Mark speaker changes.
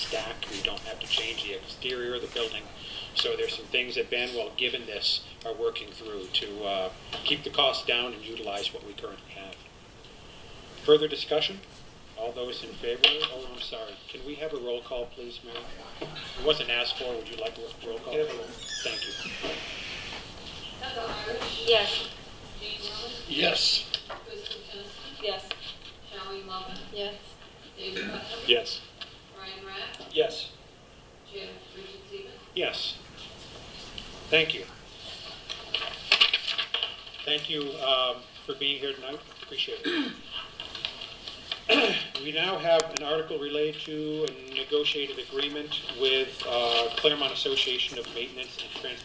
Speaker 1: deck, we don't have to change the exterior of the building. So there's some things that Ben, while given this, are working through to uh, keep the cost down and utilize what we currently have. Further discussion? All those in favor? Oh, I'm sorry. Can we have a roll call, please, Mary? It wasn't asked for. Would you like a roll call? Thank you.
Speaker 2: Heather Irish.
Speaker 3: Yes.
Speaker 2: Jane Lewis.
Speaker 4: Yes.
Speaker 2: Kristen Kennedy.
Speaker 3: Yes.
Speaker 2: Shelley Lovin.
Speaker 3: Yes.
Speaker 2: David Putnam.
Speaker 1: Yes.
Speaker 2: Brian Rapp.
Speaker 1: Yes.
Speaker 2: Jim Richard Seaman.
Speaker 1: Yes. Thank you. Thank you um, for being here tonight. Appreciate it. We now have an article related to a negotiated agreement with uh, Claremont Association of Maintenance and Transportation